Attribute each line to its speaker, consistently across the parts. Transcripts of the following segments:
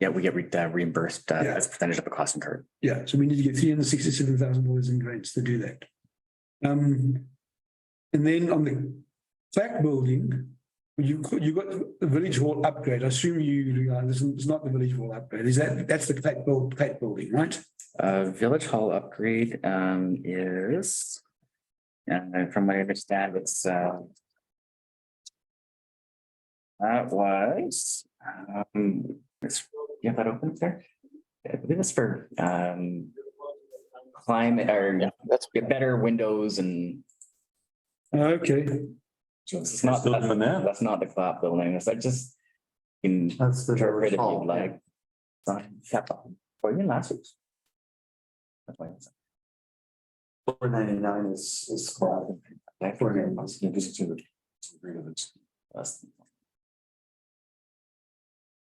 Speaker 1: Yeah, we get re- uh, reimbursed uh,
Speaker 2: Yeah.
Speaker 1: as a percentage of the cost incurred.
Speaker 2: Yeah, so we need to get three hundred sixty-seven thousand dollars in grants to do that. Um, and then on the back building, you, you got the village hall upgrade. I assume you, uh, this is not the village hall upgrade. Is that, that's the Platt build, Platt building, right?
Speaker 1: Uh, Village Hall upgrade um is. And from what I understand, it's uh. That was, um, it's, you have that open there? I believe it's for um. Climate or
Speaker 3: That's
Speaker 1: get better windows and
Speaker 2: Okay,
Speaker 1: it's not,
Speaker 4: Still doing that?
Speaker 1: that's not the clap building, it's like just. In
Speaker 3: That's the.
Speaker 1: interpret if
Speaker 3: hall,
Speaker 1: you'd like. Sign, cap up, or even last week's. That's why it's-
Speaker 3: yeah. Four ninety-nine is, is. called.
Speaker 1: Like,
Speaker 3: Four ninety nine.
Speaker 1: that's-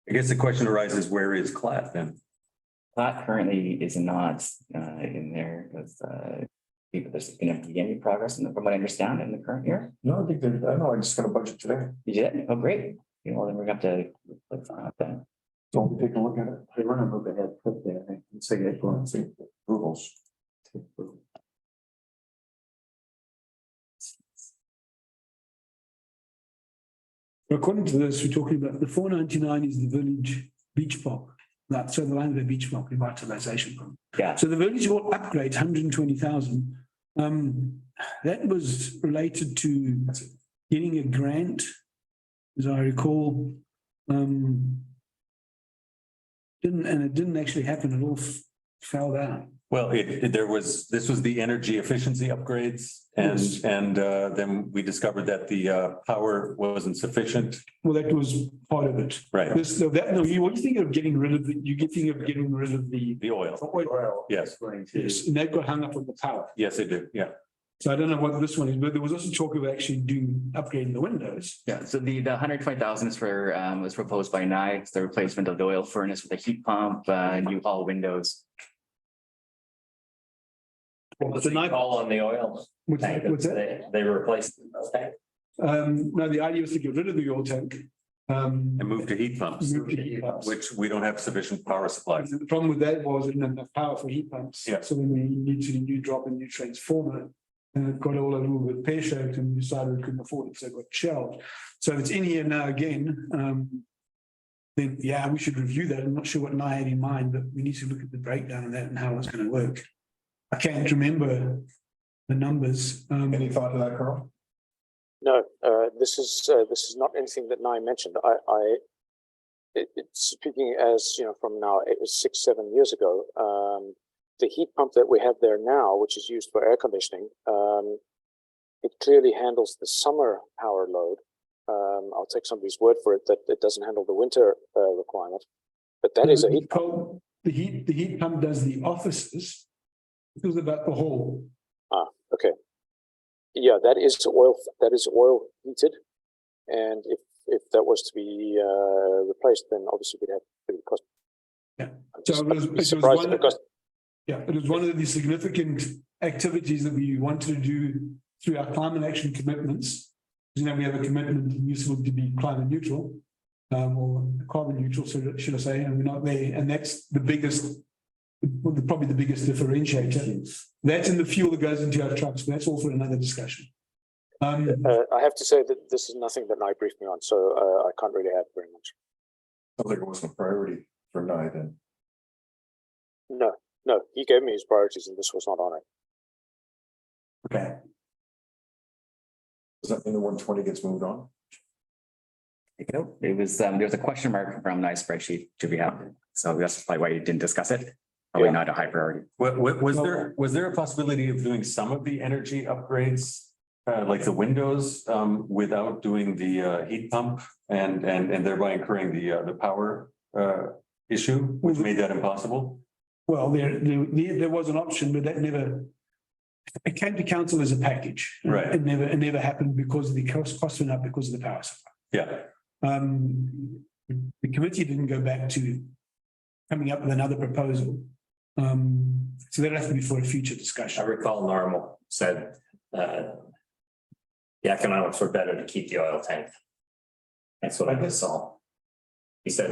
Speaker 4: I guess the question arises, where is Clat then?
Speaker 1: That currently is not uh in there because uh. People, there's gonna be any progress in the- from what I understand in the current year.
Speaker 3: No, I think, that- I know, I just got a budget today.
Speaker 1: You did? Oh, great. You know, then we're gonna have to. let's sign up then.
Speaker 3: So take a look at it. They want to move ahead, put there, I think, and say, yeah, go and see approvals.
Speaker 2: according to this, we're talking about the four ninety-nine is the village beach park. That, so the land of the beach park revitalization. fund.
Speaker 1: Yeah,
Speaker 2: So the village hall upgrade, hundred and twenty thousand. Um, that was related to getting a grant, as I recall. Um. Didn't, and it didn't actually happen, it all f- fell down.
Speaker 4: Well, it, it- there was, this was the energy efficiency upgrades and,
Speaker 2: Yes.
Speaker 4: and uh, then we discovered that the uh, power wasn't sufficient.
Speaker 2: Well, that was part of it.
Speaker 4: Right,
Speaker 2: This, no, that, no, you, what you think of getting rid of, the- you get thinking of getting rid of the,
Speaker 4: the oil.
Speaker 3: Well,
Speaker 4: Yes,
Speaker 3: Going to.
Speaker 2: yes, and that got hung up on the power.
Speaker 4: yes, they do, yeah.
Speaker 2: So I don't know what this one is, but there was also talk of actually doing, upgrading the windows.
Speaker 1: yeah. So the the hundred twenty thousand is for um was proposed by Nye, It's the replacement of the oil furnace with a heat pump, uh new hall windows.
Speaker 2: What's that?
Speaker 1: on the oil.
Speaker 2: What's that?
Speaker 1: They replaced.
Speaker 2: Um, no, the idea was to get rid of the oil tank. Um.
Speaker 4: And move to heat pumps,
Speaker 2: move to heat pumps.
Speaker 4: which we don't have sufficient power supply.
Speaker 2: The problem with that was it didn't have enough power for heat pumps.
Speaker 4: Yeah.
Speaker 2: So then we needed to new drop a new transformer. And it got all a little bit pear shaped and we decided we couldn't afford it, so it got shelved. So if it's in here now again, um. Then, yeah, we should review that. I'm not sure what I had in mind, but we need to look at the breakdown of that and how it's gonna work. I can't remember the numbers. Um,
Speaker 3: Any thought to that, Carl?
Speaker 5: No, uh, this is, uh, this is not anything that Nye mentioned. I, I, it, it's speaking as, you know, from now, it was six, seven years ago. Um, the heat pump that we have there now, which is used for air conditioning, um, it clearly handles the summer power load. Um, I'll take somebody's word for it that it doesn't handle the winter, uh, requirement. But that is a heat pump.
Speaker 2: cold- The heat, the heat pump does the offices. It was about the hall.
Speaker 5: Yeah, that is oil, that is oil heated. And if, if that was to be, uh, replaced, then obviously we'd have pretty cost.
Speaker 2: Yeah.
Speaker 5: I'm
Speaker 2: So
Speaker 5: just-
Speaker 2: it was-
Speaker 5: I'm
Speaker 2: it was
Speaker 5: surprised
Speaker 2: one-
Speaker 5: at the cost.
Speaker 2: Yeah, it was one of the significant activities that we wanted to do through our climate action commitments. You know, we have a commitment in New Zealand to be climate neutral, um, or carbon neutral, so should I say, and we're not there, and that's the biggest. well, the- Probably the biggest differentiator. That's in the fuel that goes into our trucks, but that's all for another discussion. Um,
Speaker 5: Uh, I have to say that this is nothing that Nye briefed me on, so, uh, I can't really add very much.
Speaker 3: Sounds like it wasn't a priority for Nye then.
Speaker 5: No, no, he gave me his priorities and this was not on it.
Speaker 3: Okay. Does that mean the one twenty gets moved on?
Speaker 1: It was, um, there was a question mark from Nye spreadsheet to be out, so that's probably why you didn't discuss it. Probably
Speaker 5: Yeah.
Speaker 1: not a high priority.
Speaker 4: Wa- wa- was there, was there a possibility of doing some of the energy upgrades? Uh, like the windows, um, without doing the, uh, heat pump and, and, and thereby incurring the, uh, the power, uh, issue, which made that impossible?
Speaker 2: Well, there, there, there was an option, but that never. It came to council as a package.
Speaker 4: Right.
Speaker 2: It never, it never happened because the cost, cost went up because of the power supply.
Speaker 4: Yeah,
Speaker 2: Um, the committee didn't go back to coming up with another proposal. Um, so that'll have to be for a future
Speaker 6: I
Speaker 2: discussion.
Speaker 6: recall Normal said, uh, the economics were better to keep the oil tank. That's what I just saw. He said